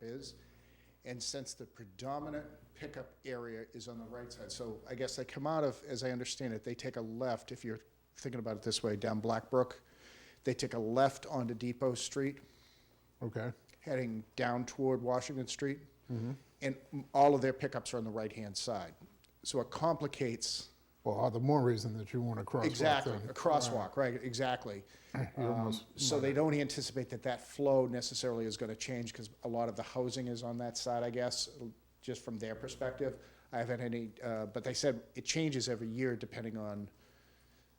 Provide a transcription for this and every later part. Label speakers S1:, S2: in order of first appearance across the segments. S1: is. And since the predominant pickup area is on the right side, so I guess they come out of, as I understand it, they take a left, if you're thinking about it this way, down Blackbrook. They take a left onto Depot Street,
S2: Okay.
S1: heading down toward Washington Street. And all of their pickups are on the right-hand side. So it complicates,
S2: Well, all the more reason that you want a crosswalk.
S1: exactly,
S2: then.
S1: a crosswalk, right, exactly. Um,
S2: You're almost-
S1: So they don't anticipate that that flow necessarily is going to change because a lot of the housing is on that side, I guess, just from their perspective. I haven't any, uh, but they said it changes every year depending on,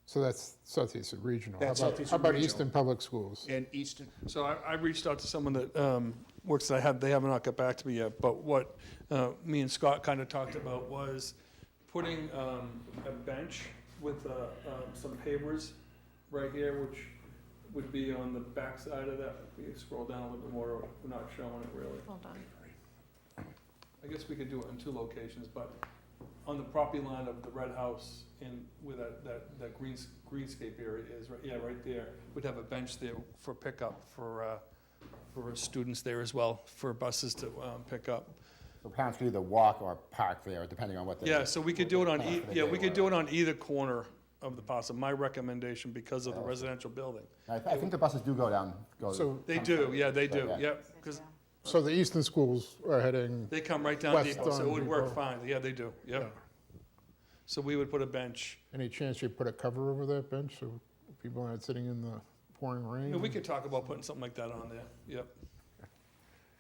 S2: So that's Southeastern Regional. How
S1: That's
S2: about-
S1: Southeastern
S2: How about
S1: Regional.
S2: Eastern Public Schools?
S1: and Easton,
S3: So I, I reached out to someone that um, works that I have, they have not got back to me yet, but what uh, me and Scott kind of talked about was putting um, a bench with uh, um, some pavers right here, which would be on the backside of that. If you scroll down a little bit more, we're not showing it really.
S4: Hold on.
S3: I guess we could do it in two locations, but on the property line of the red house and where that, that, that greens, greenscape area is, right, yeah, right there. We'd have a bench there for pickup for, uh, for students there as well, for buses to, um, pick up.
S5: So parents can either walk or park there, depending on what they.
S3: Yeah, so we could do it on, e-
S5: Confident
S3: yeah,
S5: they
S3: we could
S5: were.
S3: do it on either corner of the plaza, my recommendation because of the residential building.
S5: I, I think the buses do go down, go.
S2: So,
S3: They do, yeah, they do,
S5: Yeah.
S3: yep, because
S2: so the Eastern schools are heading,
S3: They come right down
S2: West
S3: Depot, so it
S2: on
S3: would work
S2: Depot.
S3: fine, yeah, they do, yep. So we would put a bench.
S2: any chance you put a cover over that bench so people aren't sitting in the pouring rain?
S3: Yeah, we could talk about putting something like that on there, yep.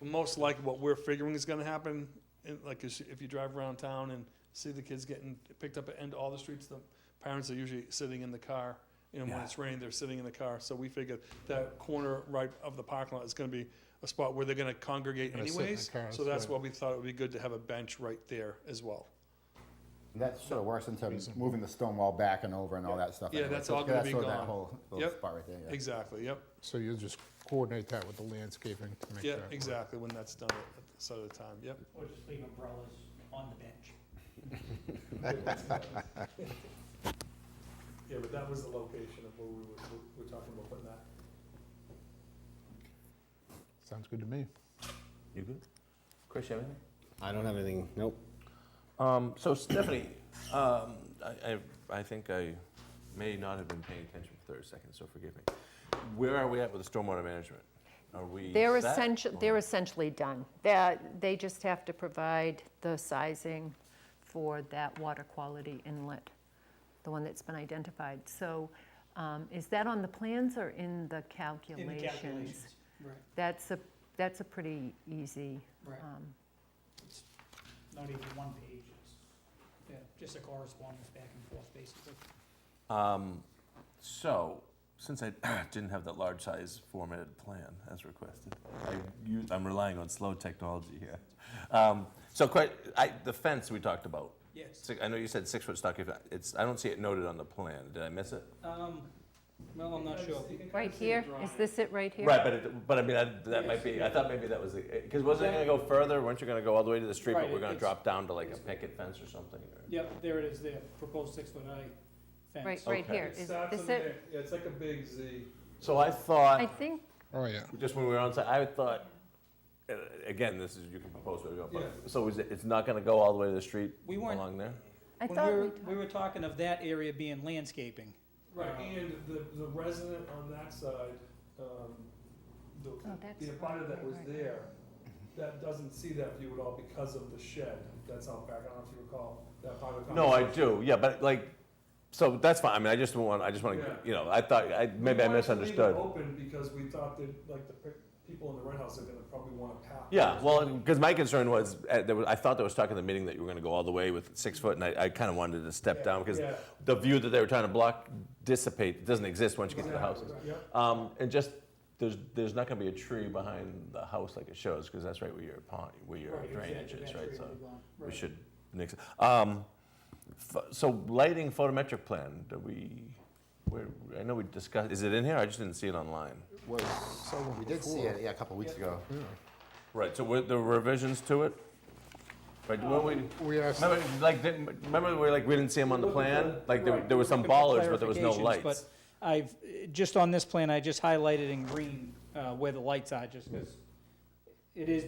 S3: Most likely what we're figuring is gonna happen, and like is if you drive around town and see the kids getting picked up at end all the streets, the parents are usually sitting in the car. And when it's raining, they're sitting in the car, so we figured that corner right of the parking lot is gonna be a spot where they're gonna congregate
S2: Gonna sit in the
S3: anyways.
S2: car,
S3: So
S2: that's
S3: that's why we thought it would be good to have a bench right there as well.
S5: That sort of works into moving the stone wall back and over and all that stuff.
S3: Yeah,
S5: anyway.
S3: that's
S5: So
S3: all gonna
S5: that's
S3: be
S5: sort of that
S3: gone.
S5: whole little
S3: Yep.
S5: spot right there, yeah.
S3: Exactly, yep,
S2: So you'll just coordinate that with the landscaping to make
S3: yeah,
S2: that.
S3: exactly, when that's done at the side of the time, yep.
S6: Or just leave umbrellas on the bench.
S3: Yeah, but that was the location of where we were, we were talking about putting that.
S2: Sounds good to me.
S7: You good? Chris, you have anything?
S5: I don't have anything, nope.
S7: Um, so Stephanie, um, I, I, I think I may not have been paying attention for thirty seconds, so forgive me. Where are we at with the stormwater management? Are we?
S4: They're
S7: set?
S4: essentially, they're essentially done. That, they just have to provide the sizing for that water quality inlet, the one that's been identified. So um, is that on the plans or in the
S6: In the
S4: calculations?
S6: calculations. Right,
S4: That's a, that's a pretty easy,
S6: right.
S4: um,
S6: It's not even one page. It's yeah, just a correspondence back and forth, basically.
S7: Um, so, since I didn't have that large size formatted plan as requested, I use, I'm relying on slow technology here. Um, so quite, I, the fence we talked about,
S6: Yes.
S7: Six- I know you said six foot stockade, but it's, I don't see it noted on the plan, did I miss it?
S6: Um, well, I'm not sure.
S4: right here? Is this it right here?
S7: Right, but it, but I mean, I, that might be, I thought maybe that was the, because wasn't it gonna go further, weren't you gonna go all the way to the street, but
S6: Right,
S7: we're gonna
S6: it's-
S7: drop down to like a picket fence or something? or-
S6: Yep, there it is, there, proposed six-foot high
S4: Right,
S6: fence.
S4: right
S7: Okay.
S4: here. Is this it?
S3: Yeah, it's like a big Z.
S7: So I
S4: I
S7: thought,
S4: think,
S2: Oh, yeah.
S7: just when we were on site, I thought, uh, again, this is, you can propose where to go,
S3: Yeah.
S7: but, so is it, it's not gonna go all the way to the street
S6: We weren't-
S7: along there?
S4: I
S6: When we
S4: thought we
S6: were, we were talking of that area being landscaping.
S3: Right, and the, the resident on that side, um, the,
S4: Oh, that's
S3: the abutter that was
S4: right, right.
S3: there, that doesn't see that view at all because of the shed that's out back, I don't know if you recall that part of the
S7: No, I
S3: conversation.
S7: do, yeah, but like, so that's fine, I mean, I just don't want, I just
S3: Yeah.
S7: wanna, you know, I thought, I, maybe I misunderstood.
S3: We wanted to leave it open because we thought that, like, the pe- people in the red house are gonna probably wanna pack.
S7: Yeah, well, because my concern was, uh, there was, I thought there was talk in the meeting that you were gonna go all the way with six foot, and I, I kinda wanted to step down, because
S3: Yeah.
S7: the view that they were trying to block dissipate, it doesn't exist once you get to the houses.
S3: Yep.
S7: Um, and just, there's, there's not gonna be a tree behind the house like it shows, because that's right where your pond, where your
S6: Right, exactly,
S7: drainage is,
S6: that's
S7: right,
S6: where
S7: so
S6: we're going.
S7: we should nix, it. um, ph- so lighting photometric plan, do we, where, I know we discussed, is it in here? I just didn't see it online.
S5: Was, we did see it, yeah, a couple weeks ago.
S7: Right, so were there revisions to it? Right, weren't we?
S2: We asked,
S7: Remember, like, didn't, remember, we like, we didn't see them on the plan? Like, there,
S6: Right,
S7: there were some
S6: looking for
S7: ballers, but there was no
S6: clarifications,
S7: lights.
S6: But I've, just on this plan, I just highlighted in green uh, where the lights are, just because it is